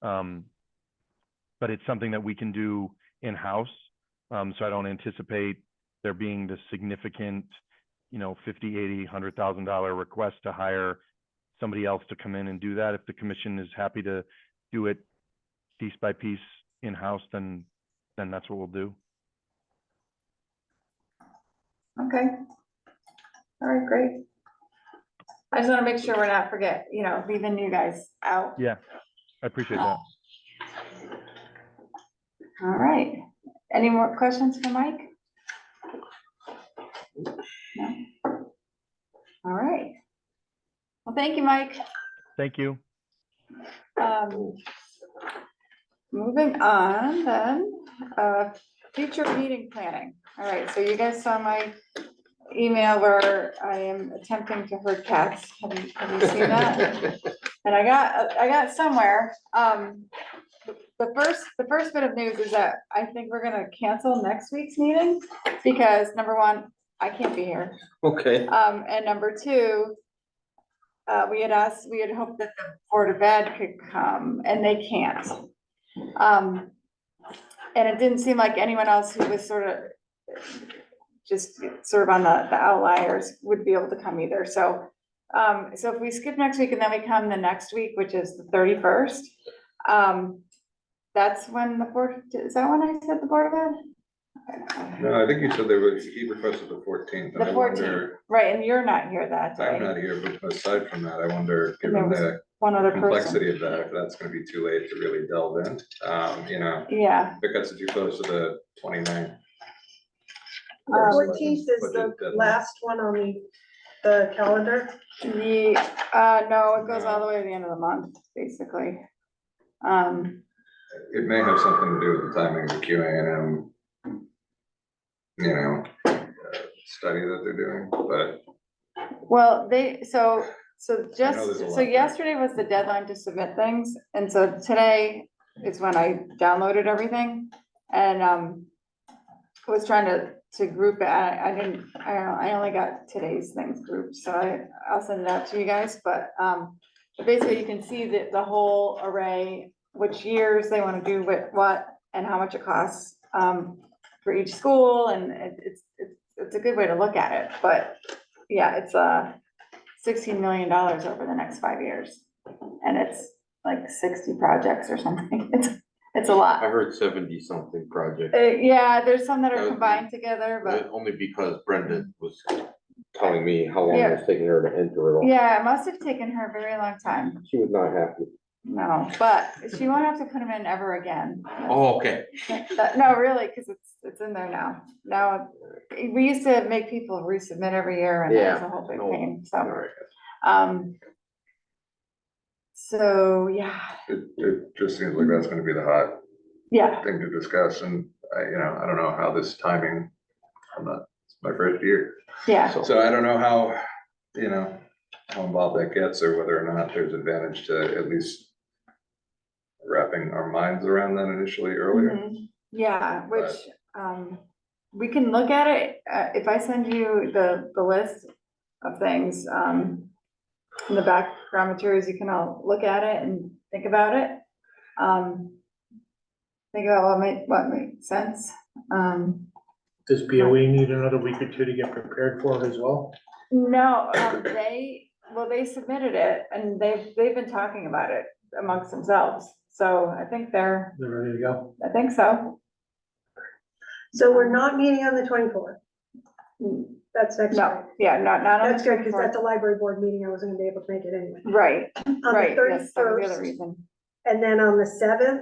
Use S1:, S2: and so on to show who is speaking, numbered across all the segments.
S1: Um, but it's something that we can do in-house. Um, so I don't anticipate there being the significant, you know, fifty, eighty, hundred thousand dollar request to hire somebody else to come in and do that. If the commission is happy to do it piece by piece in-house, then, then that's what we'll do.
S2: Okay. All right, great. I just want to make sure we're not forget, you know, leaving you guys out.
S1: Yeah, I appreciate that.
S2: All right. Any more questions for Mike? No. All right. Well, thank you, Mike.
S1: Thank you.
S2: Um, Moving on then, uh, future meeting planning. All right, so you guys saw my email where I am attempting to herd cats. Have you, have you seen that? And I got, I got somewhere, um, the first, the first bit of news is that I think we're gonna cancel next week's meeting. Because number one, I can't be here,
S3: Okay,
S2: um, and number two. Uh, we had asked, we had hoped that the Board of Ed could come, and they can't. Um, and it didn't seem like anyone else who was sort of. Just sort of on the, the outliers would be able to come either, so. Um, so if we skip next week and then we come the next week, which is the thirty-first, um. That's when the board, is that when I said the Board of Ed?
S4: No, I think you said there was, he requested the fourteenth.
S2: The 14th, right, and you're not here that day.
S4: I'm not here, but aside from that, I wonder,
S2: There
S4: given
S2: was
S4: the
S2: one other person.
S4: complexity of that, if that's gonna be too late to really delve in. Um, you know,
S2: Yeah,
S4: if it gets too close to the 29th.
S2: Um,
S5: The fourteenth is the last one on the, the calendar.
S2: the, uh, no, it goes all the way to the end of the month, basically. Um,
S4: It may have something to do with the timing of the Q A and M. You know, uh, study that they're doing, but
S2: well, they, so, so
S4: there's a
S2: just,
S4: lot
S2: so
S4: there.
S2: yesterday was the deadline to submit things, and so today is when I downloaded everything. And, um, was trying to, to group it, I, I didn't, I don't know, I only got today's things grouped, so I, I'll send it out to you guys, but, um. Basically, you can see the, the whole array, which years they wanna do what, what, and how much it costs, um, for each school, and it, it's, it's, it's a good way to look at it, but, yeah, it's, uh, sixteen million dollars over the next five years, and it's like sixty projects or something, it's, it's a lot.
S6: I heard seventy something project,
S2: Uh, yeah, there's some that are
S6: Okay.
S2: combined together,
S6: but
S2: but,
S6: only because Brenda was telling me how long it was taking her to enter it all.
S2: yeah, it must have taken her a very long time,
S6: She was not happy.
S2: no, but she won't have to put them in ever again.
S6: Oh, okay.
S2: That- No, really, because it's, it's in there now, now, we used to make people resubmit every year, and it was a whole big
S6: no.
S2: pain,
S6: All
S2: so,
S6: right.
S2: um. So, yeah,
S4: it, it just seems like that's gonna be the hot
S2: yeah,
S4: thing to discuss and I, you know, I don't know how this timing, I'm not, it's my first year.
S2: yeah,
S4: So I don't know how, you know, how involved that gets or whether or not there's advantage to at least wrapping our minds around that initially earlier.
S2: mhm, yeah, which, um, we can look at it, uh, if I send you the, the list of things, um, in the background materials, you can all look at it and think about it. Um, think about what made, what made sense, um,
S7: Does BOE need another week or two to get prepared for it as well?
S2: no, um, they, well, they submitted it, and they've, they've been talking about it amongst themselves, so I think they're,
S7: They're ready to go?
S2: I think so.
S5: So we're not meeting on the twenty-fourth.
S2: No,
S5: That's next week.
S2: yeah, not, not on the
S5: That's good, because
S2: 24th.
S5: at the library board meeting, I wasn't gonna be able to make it anyway.
S2: Right,
S5: On the
S2: right, yes, that was the other
S5: thirty-first,
S2: reason,
S5: and then on the seventh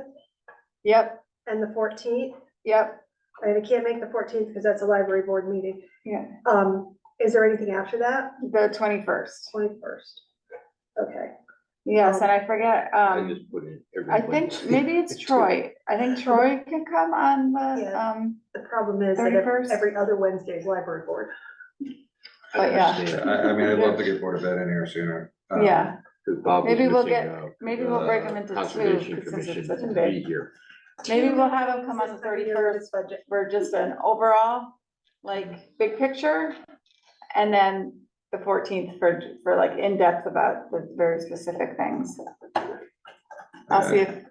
S2: yep,
S5: and the fourteenth,
S2: yep,
S5: and I can't make the fourteenth because that's a library board meeting.
S2: yeah,
S5: Um, is there anything after that?
S2: the twenty-first,
S5: Twenty-first. Okay,
S2: yes, and I forget,
S6: I
S2: um,
S6: just put in
S2: I
S6: everyone.
S2: think maybe it's Troy, I think Troy can come on the,
S5: Yeah.
S2: um,
S5: the problem is that
S2: 31st?
S5: ev- every other Wednesday is library board.
S2: but yeah.
S4: I,
S6: understand,
S4: I mean, I'd love to get Board of Ed in here sooner. um,
S2: Mm-hmm. yeah,
S6: 'cause Bob was
S2: Maybe we'll
S6: missing
S2: get-
S6: out. uh,
S2: maybe we'll break 'em into two,
S6: Conservation
S2: 'cause since it's
S6: Commission
S2: such a
S6: will
S2: big-
S6: be here.
S2: maybe we'll have him come on the
S5: This is year of
S2: thirty-first,
S5: this budget.
S2: for just an overall, like, big picture. And then the fourteenth for, for like in-depth about the very specific things. I'll see if,